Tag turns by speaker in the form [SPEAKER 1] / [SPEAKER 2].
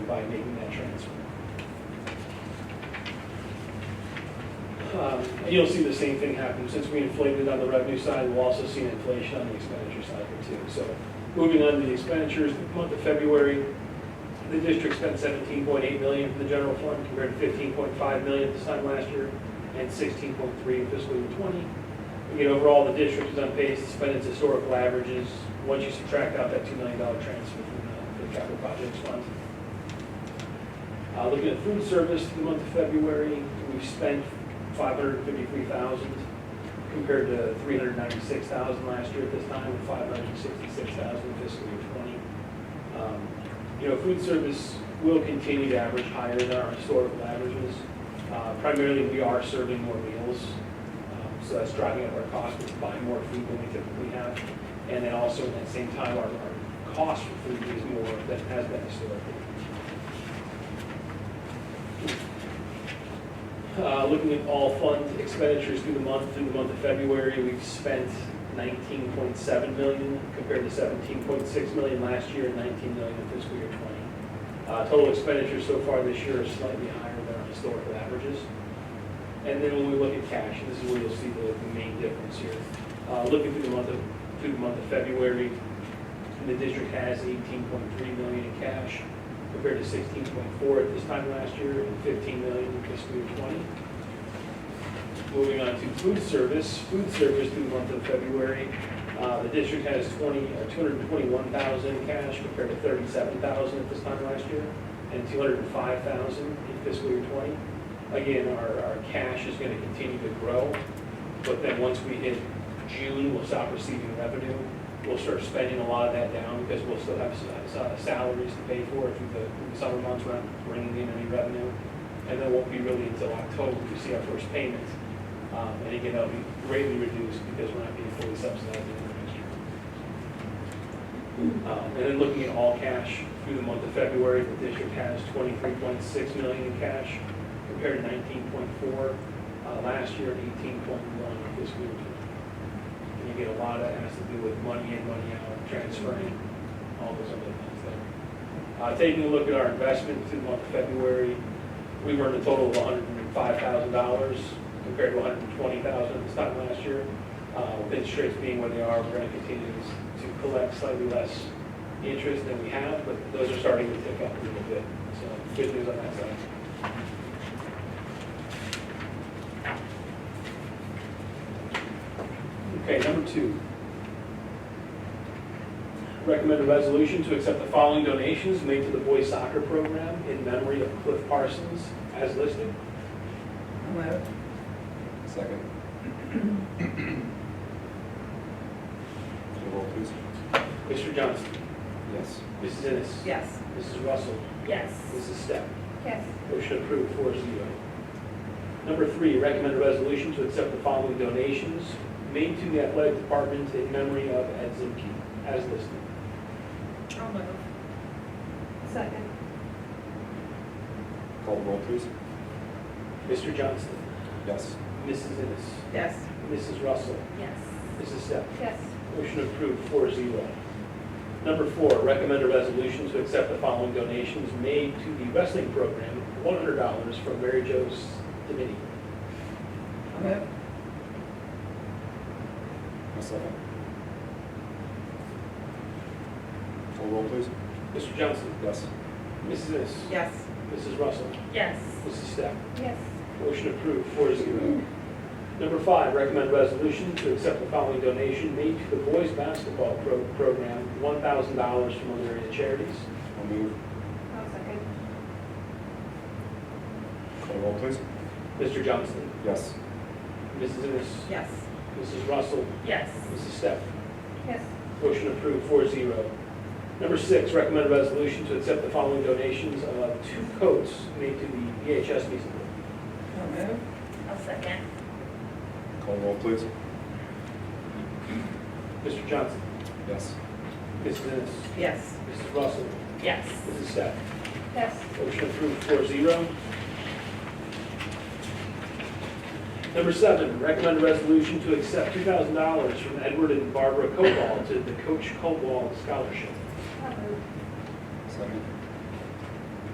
[SPEAKER 1] by making that transfer. Um, and You'll see the same thing happen, since we inflated on the revenue side, we'll also see an inflation on the expenditure side here too. So, moving on to the expenditures, the month of February, the district spent seventeen point eight million from the general fund compared to fifteen point five million this time last year and sixteen point three in fiscal year twenty. Again, overall, the district is on pace to spend its historical averages, once you subtract out that two million dollar transfer from the- the capital projects fund. Uh, looking at food service, the month of February, we spent five hundred fifty-three thousand compared to three hundred ninety-six thousand last year at this time, and five hundred sixty-six thousand in fiscal year twenty. Um, You know, food service will continue to average higher than our historical averages. Uh, Primarily, we are serving more meals, um, so that's driving up our cost, we buy more food than we typically have. And then also, at the same time, our, our cost for food is more than it has been historically. Uh, Looking at all fund expenditures through the month, through the month of February, we've spent 19.7 million compared to 17.6 million last year and 19 million in fiscal year 20. Uh, Total expenditures so far this year are slightly higher than our historical averages. And then when we look at cash, and this is where you'll see the the main difference here. Uh, Looking through the month of, through the month of February, the district has 18.3 million in cash compared to 16.4 at this time last year and 15 million in fiscal year 20. Moving on to food service, food service through the month of February, uh, the district has 20, uh, 221,000 in cash compared to 37,000 at this time last year and 205,000 in fiscal year 20. Again, our, our cash is going to continue to grow, but then once we hit June, we'll stop receiving revenue. We'll start spending a lot of that down because we'll still have s- s- salaries to pay for through the through the summer months, we're not bringing in any revenue. And that won't be really until October, we see our first payment. Um, And again, that'll be greatly reduced because we're not being fully subsidized in the next year. Um, And then looking at all cash through the month of February, the district has 23.6 million in cash compared to 19.4 uh, last year and 18.1 this year. And you get a lot of, that has to do with money in, money out, transferring, all those other things there. Uh, Taking a look at our investment through the month of February, we earned a total of $105,000 compared to $120,000 this time last year. Uh, With interest rates being where they are, we're going to continue to to collect slightly less interest than we have, but those are starting to tick up a little bit. So good news on that side. Okay, number two. Recommend a resolution to accept the following donations made to the boys soccer program in memory of Cliff Parsons as listed.
[SPEAKER 2] Move.
[SPEAKER 3] Second. Roll please.
[SPEAKER 1] Mr. Johnson,
[SPEAKER 3] Yes.
[SPEAKER 1] Mrs. Ennis.
[SPEAKER 2] Yes.
[SPEAKER 1] Mrs. Russell,
[SPEAKER 2] Yes.
[SPEAKER 1] Mrs. Step.
[SPEAKER 2] Yes.
[SPEAKER 1] Motion approved four zero. Number three, recommend a resolution to accept the following donations made to the athletic department in memory of Ed Zimke as listed.
[SPEAKER 2] I'll move. Second.
[SPEAKER 3] Call the roll please.
[SPEAKER 1] Mr. Johnston,
[SPEAKER 3] Yes.
[SPEAKER 1] Mrs. Ennis,
[SPEAKER 2] Yes.
[SPEAKER 1] Mrs. Russell,
[SPEAKER 2] Yes.
[SPEAKER 1] Mrs. Step.
[SPEAKER 2] Yes.
[SPEAKER 1] Motion approved, four zero. Number four, recommend a resolution to accept the following donations made to the wrestling program, one hundred dollars from Mary Jo's Dominion.
[SPEAKER 2] I'll move.
[SPEAKER 3] A second. Call the roll please.
[SPEAKER 1] Mr. Johnson,
[SPEAKER 3] Yes.
[SPEAKER 1] Mrs. Ennis,
[SPEAKER 2] Yes.
[SPEAKER 1] Mrs. Russell,
[SPEAKER 2] Yes.
[SPEAKER 1] Mrs. Step.
[SPEAKER 2] Yes.
[SPEAKER 1] Motion approved, four zero. Number five, recommend resolution to accept the following donation made to the boys' basketball pro- program, one thousand dollars from other area charities.
[SPEAKER 3] I'll move.
[SPEAKER 2] I'll second.
[SPEAKER 3] Call the roll please.
[SPEAKER 1] Mr. Johnson,
[SPEAKER 3] Yes.
[SPEAKER 1] Mrs. Ennis,
[SPEAKER 2] Yes.
[SPEAKER 1] Mrs. Russell,
[SPEAKER 2] Yes.
[SPEAKER 1] Mrs. Step.
[SPEAKER 2] Yes.
[SPEAKER 1] Motion approved, four zero. Number six, recommend resolution to accept the following donations of two coats made to the VHS Music Board.
[SPEAKER 2] I'll move. I'll second.
[SPEAKER 3] Call the roll please.
[SPEAKER 1] Mr. Johnson,
[SPEAKER 3] Yes.
[SPEAKER 1] Mrs. Ennis,
[SPEAKER 2] Yes.
[SPEAKER 1] Mrs. Russell,
[SPEAKER 2] Yes.
[SPEAKER 1] Mrs. Steph.
[SPEAKER 2] Yes.
[SPEAKER 1] Motion approved, four zero. Number seven, recommend a resolution to accept two thousand dollars from Edward and Barbara Cobal to the Coach Cobal Scholarship.
[SPEAKER 2] I'll move.
[SPEAKER 3] Second.